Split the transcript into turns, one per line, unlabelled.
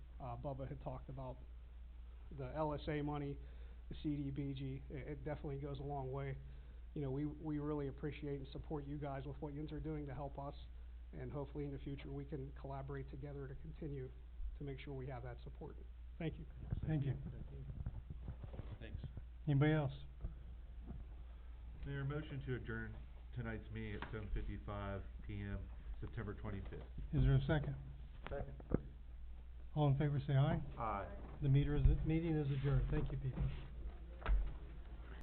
Uh, Bubba had talked about, the LSA money, the CDBG, it, it definitely goes a long way. You know, we, we really appreciate and support you guys with what yous are doing to help us, and hopefully in the future, we can collaborate together to continue to make sure we have that support. Thank you.
Thank you.
Thanks.
Anybody else?
Mayor, motion to adjourn tonight's meeting at seven fifty-five PM, September twenty-fifth.
Is there a second?
Second.
All in favor, say aye.
Aye.
The meter is, meeting is adjourned. Thank you, people.